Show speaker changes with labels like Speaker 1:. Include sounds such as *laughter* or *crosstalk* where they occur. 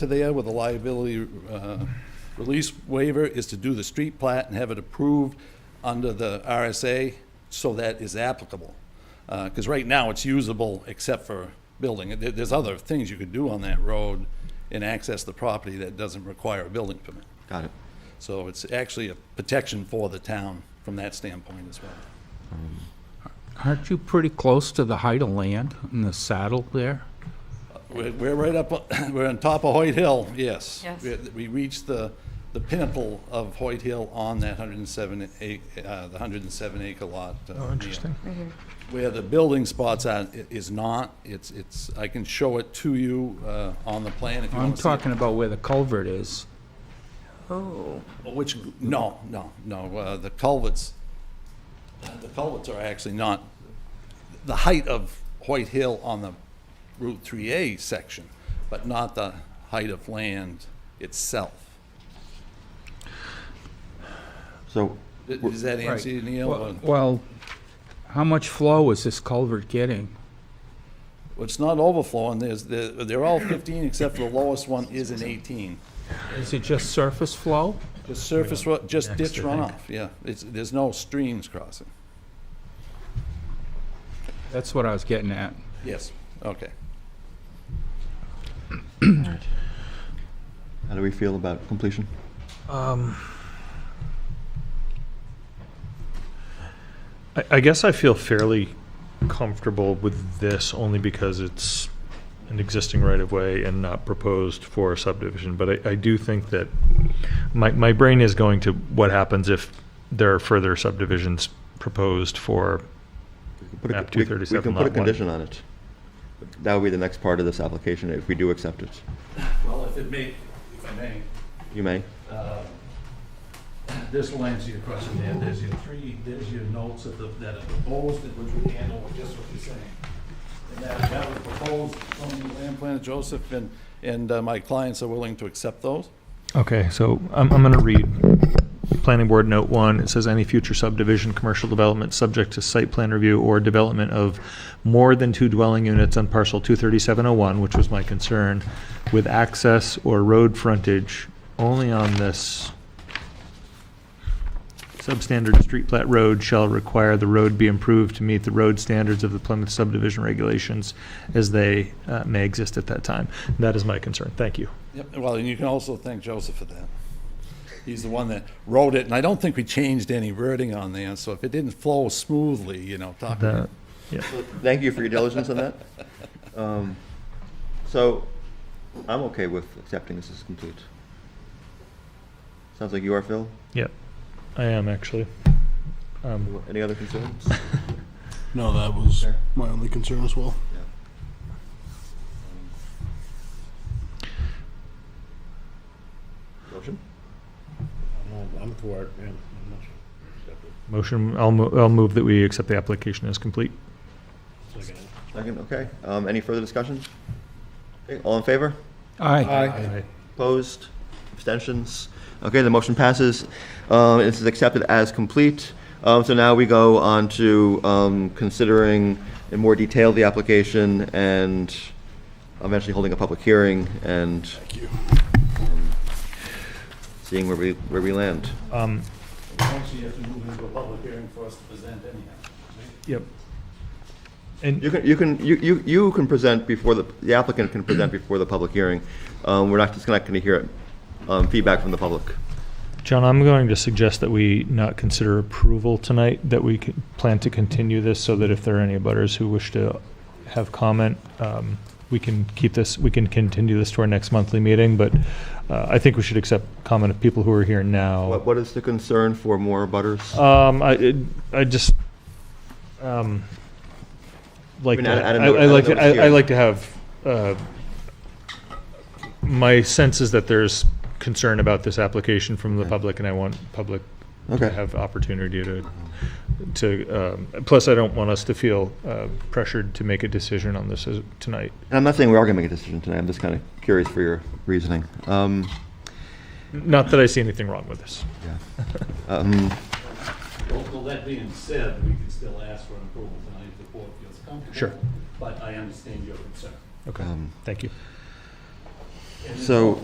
Speaker 1: there with a liability uh, release waiver is to do the street plat and have it approved under the RSA so that is applicable. Because right now, it's usable except for building. There- There's other things you could do on that road and access the property that doesn't require a building permit.
Speaker 2: Got it.
Speaker 1: So it's actually a protection for the town from that standpoint as well.
Speaker 3: Aren't you pretty close to the height of land in the saddle there?
Speaker 1: We're we're right up, *coughs* we're on top of Hoyt Hill, yes.
Speaker 4: Yes.
Speaker 1: We- We reached the, the pinnacle of Hoyt Hill on that 107 ac uh, the 107 acre lot. Oh, interesting. Where the building spots are, i- is not, it's, it's, I can show it to you uh, on the plan if you
Speaker 3: I'm
Speaker 1: want to see. it.
Speaker 3: talking about where the culvert is.
Speaker 4: Oh,
Speaker 1: Which, no, no, no, uh, the culverts, the culverts are actually not, the height of Hoyt Hill on the Route 3A section, but not the height of land itself.
Speaker 2: So,
Speaker 1: Does that answer you, Neil?
Speaker 3: Well-
Speaker 1: Or-
Speaker 3: Well, how much flow is this culvert getting?
Speaker 1: Well, It's not overflowing, there's, they're they're all 15 except for the lowest one is an 18.
Speaker 3: Is it just surface flow?
Speaker 1: The surface, ru- just ditch
Speaker 3: I think.
Speaker 1: runoff, yeah. It's, there's no streams crossing.
Speaker 3: That's what I was getting at.
Speaker 1: Yes, okay.
Speaker 2: how do we feel about completion?
Speaker 5: I, I guess I feel fairly comfortable with this only because it's an existing right of way and not proposed for a subdivision. But I, I do think that my, my brain is going to what happens if there are further subdivisions proposed for.
Speaker 2: Put a-
Speaker 5: Map
Speaker 2: we- We
Speaker 5: 237
Speaker 2: can put a
Speaker 5: lot one.
Speaker 2: condition on it. That would be the next part of this application, if we do accept it.
Speaker 1: Well, if it may, if I may,
Speaker 2: You may.
Speaker 1: This will answer your question, Dan. There's your three, there's your notes of the, that are proposed, and which we handle with just what you're saying. And that, that was proposed from the land planner Joseph, and, and uh, my clients are willing to accept those.
Speaker 5: Okay, so I'm, I'm going to read Planning Board Note 1. It says any future subdivision, commercial development subject to site plan review or development of more than two dwelling units on parcel 23701, which was my concern, with access or road frontage only on this substandard street plat road shall require the road be improved to meet the road standards of the Plymouth subdivision regulations as they uh, may exist at that time. That is my concern. Thank you.
Speaker 1: Yep, well, and you can also thank Joseph for that. He's the one that wrote it, and I don't think we changed any wording on there, so if it didn't flow smoothly, you know, talk,
Speaker 5: That- yeah.
Speaker 2: Thank you for your diligence on *laughs* that. Um, So, I'm okay with accepting this as complete. Sounds like you are, Phil.
Speaker 5: Yep, I am actually. Um,
Speaker 2: Any other concerns?
Speaker 6: No, that was
Speaker 2: Fair.
Speaker 6: my only concern as well.
Speaker 2: Motion?
Speaker 6: I'm for it,
Speaker 5: motion. I'll, mo- I'll move that we accept the application as complete.
Speaker 2: Second, okay. Um, Any further discussion? Okay, All in favor?
Speaker 3: Aye.
Speaker 5: Aye.
Speaker 2: Opposed? Abstentions? Okay, the motion passes. Um, This is accepted as complete. Um, So now we go on to um, considering in more detail the application and eventually holding a public hearing and um, seeing where we, where we land.
Speaker 5: Um,
Speaker 1: actually, you have to move into a public hearing for us to present anyhow.
Speaker 5: yep. And
Speaker 2: You can, you can, you, you you can present before the, the applicant can present before the public hearing. Um, We're not, just not going to hear um, feedback from the public.
Speaker 5: John, I'm going to suggest that we not consider approval tonight, that we can plan to continue this so that if there are any butters who wish to have comment, um, we can keep this, we can continue this to our next monthly meeting, but, uh, I think we should accept comment of people who are here now.
Speaker 2: What, what is the concern for more butters?
Speaker 5: Um, I, it- I just, um, like,
Speaker 2: I mean, I-
Speaker 5: to-
Speaker 2: I don't
Speaker 5: I
Speaker 2: know- I
Speaker 5: I
Speaker 2: don't
Speaker 5: like,
Speaker 2: know
Speaker 5: to-
Speaker 2: what's
Speaker 5: I I
Speaker 2: here.
Speaker 5: like to have, uh, my sense is that there's concern about this application from the public, and I want public
Speaker 2: Okay.
Speaker 5: to have opportunity to, to, um, plus I don't want us to feel uh, pressured to make a decision on this as- tonight.
Speaker 2: And I'm not saying we are going to make a decision tonight. I'm just kind of curious for your reasoning. Um,
Speaker 5: Not that I see anything wrong with this.
Speaker 2: um,
Speaker 1: Well, well, that being said, we can still ask for an approval tonight if the board feels comfortable.
Speaker 5: Sure.
Speaker 1: But I understand your concern.
Speaker 5: Okay,
Speaker 2: Um,
Speaker 5: thank you.
Speaker 2: So